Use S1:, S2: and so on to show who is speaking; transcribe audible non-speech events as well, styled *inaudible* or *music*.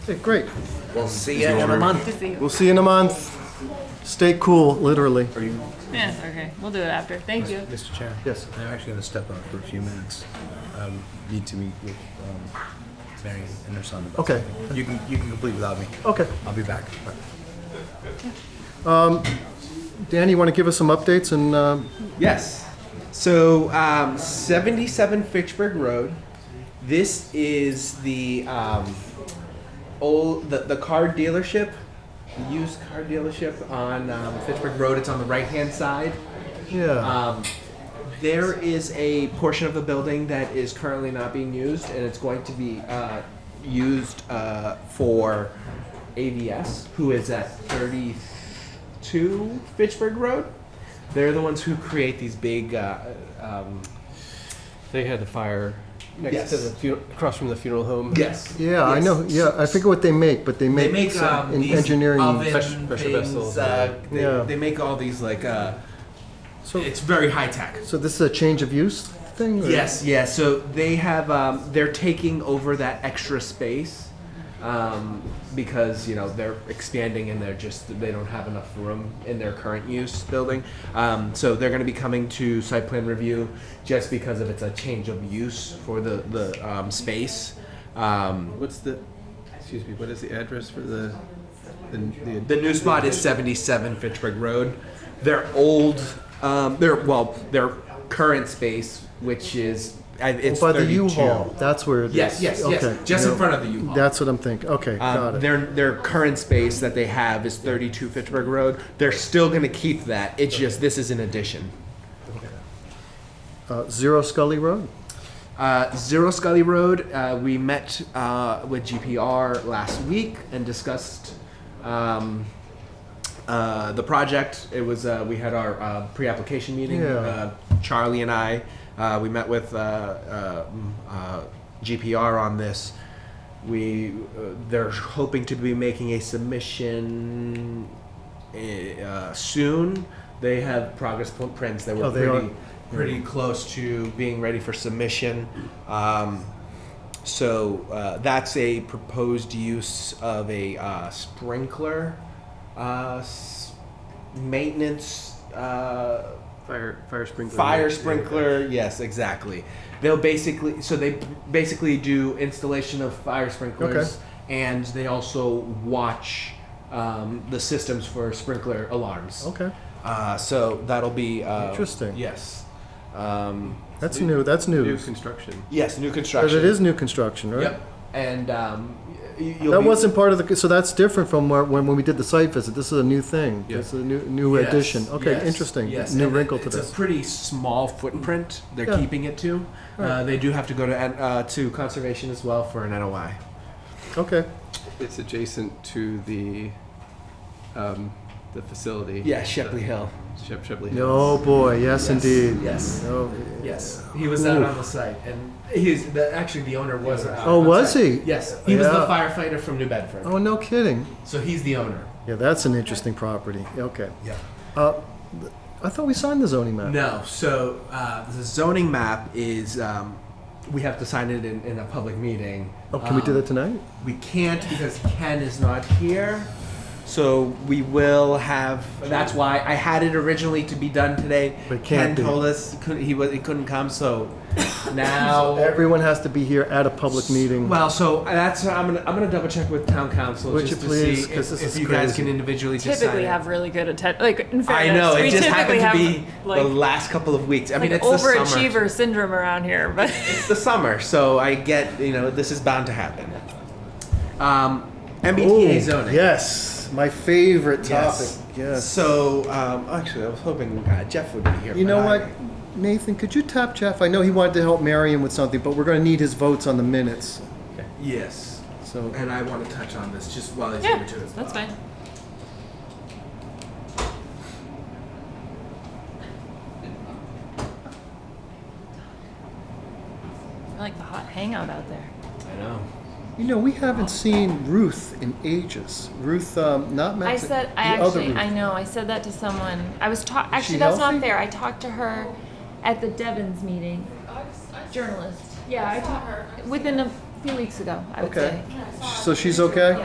S1: Okay, great.
S2: We'll see you in a month.
S1: We'll see you in a month. Stay cool, literally.
S3: Yeah, okay, we'll do it after. Thank you.
S4: Mr. Chair,
S1: Yes.
S4: I'm actually going to step out for a few minutes. Um, need to meet with um, Mary and her son. About
S1: Okay.
S4: something. You can you can complete without me.
S1: Okay.
S4: I'll be back.
S1: Dan, you want to give us some updates and, um,
S5: Yes. So um, 77 Fitchburg Road. This is the um, old the, the car dealership, the used car dealership on um, Fitchburg Road. It's on the right hand side.
S1: yeah.
S5: Um, there is a portion of the building that is currently not being used, and it's going to be uh, used uh, for AVS, who is at 32 Fitchburg Road. They're the ones who create these big. Uh, um,
S6: They had the fire next
S5: Yes.
S6: to the funeral, across from the funeral home.
S5: yes.
S1: Yeah, I know, yeah, I forget what they make, but they
S5: They
S1: make
S5: make
S1: some
S5: um,
S1: in
S5: these
S1: engineering.
S5: oven
S6: Pressure- pressure
S5: things,
S6: vessels,
S5: Uh, they,
S1: yeah.
S5: they make all these like. Uh,
S1: So-
S5: it's very high tech.
S1: So this is a change of use thing? or-
S5: Yes, yeah. So they have um, they're taking over that extra space um, because you know they're expanding and they're just they don't have enough room in their current use building. Um, so they're going to be coming to site plan review just because of it's a change of use for the the um, space. Um,
S7: What's the, excuse me, what is the address for the, the, the
S5: The new spot is 77 Fitchburg Road. Their old, um, their well, their current space, which is I- it's
S1: By the
S5: 32.
S1: U-Haul, that's where it is.
S5: Yes, yes, yes.
S1: Okay,
S5: Just in
S1: yeah.
S5: front of the U-Haul.
S1: That's what I'm thinking, okay, got
S5: Um,
S1: it.
S5: their their current space that they have is 32 Fitchburg Road. They're still going to keep that. It's just this is an addition.
S1: Uh, Zero Scully Road?
S5: Uh, Zero Scully Road. Uh, we met uh, with GPR last week and discussed um, uh, the project. It was uh, we had our uh, pre-application meeting.
S1: Yeah.
S5: Uh, Charlie and I uh, we met with uh, uh, mm, uh, GPR on this. We uh, they're hoping to be making a submission uh, soon. They have progress pl- prints that were
S1: Oh, they
S5: pretty
S1: are-
S5: pretty close to being ready for submission. Um, so uh, that's a proposed use of a uh, sprinkler uh, s- maintenance uh,
S6: Fire, fire sprinkler.
S5: fire sprinkler. Yes, exactly. They'll basically so they basically do installation of fire sprinklers, and they also watch um, the systems for sprinkler alarms.
S1: Okay,
S5: Uh, so that'll be uh,
S1: Interesting.
S5: Yes. Um,
S1: that's new, that's
S7: new
S1: news.
S7: construction?
S5: yes, new
S1: But
S5: construction.
S1: it is new construction, right?
S5: Yep. And um, y- you'll
S1: That
S5: be-
S1: wasn't part of the, so that's different from where, when, when we did the site visit, this is a new thing,
S7: Yeah.
S1: this is a new, new
S5: Yes,
S1: addition, okay,
S5: yes,
S1: interesting,
S5: yes.
S1: new
S5: And
S1: wrinkle to
S5: It's
S1: this.
S5: a pretty small footprint they're
S1: Yeah.
S5: keeping it to. Uh, they do have to go to N- uh, to conservation as well for an NOI.
S1: Okay,
S7: It's adjacent to the, um, the facility.
S5: Yeah, Shepley Hill.
S7: Shep, Shepley
S1: oh
S7: Hills.
S1: boy, yes indeed.
S5: Yes.
S1: Oh,
S5: Yes, he was out on the site, and he's the, actually the owner was. out
S1: Oh,
S5: on
S1: was
S5: site.
S1: he?
S5: Yes, he was the
S1: Yeah.
S5: firefighter from New Bedford.
S1: oh, no kidding.
S5: So he's the owner.
S1: Yeah, that's an interesting property. Okay.
S5: Yeah.
S1: Uh, th- I thought we signed the zoning map.
S5: No, so uh, the zoning map is um, we have to sign it in, in a public meeting.
S1: Oh, can we do
S5: Um,
S1: that tonight?
S5: We can't because Ken is not here. So we will have. That's why I had it originally to be done today.
S1: But it can't
S5: Ken
S1: be.
S5: told us he couldn't, he, was, he couldn't come, so
S1: *coughs*
S5: now.
S1: Everyone has to be here at a public meeting.
S5: Uh, Well, so uh, that's I'm gonna I'm gonna double check with town council
S1: Would
S5: just
S1: you
S5: to see
S1: please, 'cause
S5: if,
S1: this
S5: if
S1: is
S5: you guys
S1: crazy.
S5: can individually just sign
S3: Typically
S5: it.
S3: have really good attention. Like in
S5: I
S3: fairness,
S5: know
S3: we
S5: it just
S3: typically
S5: happened to
S3: have
S5: be
S3: like,
S5: the last couple of weeks. I mean,
S3: like
S5: it's the summer.
S3: overachiever syndrome around here,
S5: *laughs*
S3: but
S5: It's the summer, so I get you know this is bound to happen. Um, MBTA
S1: Ooh,
S5: zoning.
S1: Yes, my favorite topic.
S5: Yes.
S1: Yes.
S5: So, um, actually, I was hoping uh, Jeff would be here.
S1: You
S5: but
S1: know
S5: I-
S1: what, Nathan? Could you tap Jeff? I know he wanted to help Marion with something, but we're going to need his votes on the minutes.
S5: Yes.
S1: So
S5: And I want to touch on this just while he's
S3: yeah,
S5: here too. as
S3: that's
S5: well.
S3: fine. I like the hot hangout out there.
S5: I know.
S1: you know we haven't seen Ruth in ages. Ruth, um, not
S8: I
S1: Mexican.
S8: said, I
S1: the other
S8: actually,
S1: Ruth.
S8: I know, I said that to someone. I was talking,
S1: she
S8: actually, that's
S1: healthy?
S8: not fair. I talked to her at the Devon's meeting. Journalist. Yeah, I talked, within a a few weeks ago, I would
S1: Okay.
S8: say.
S1: So she's okay?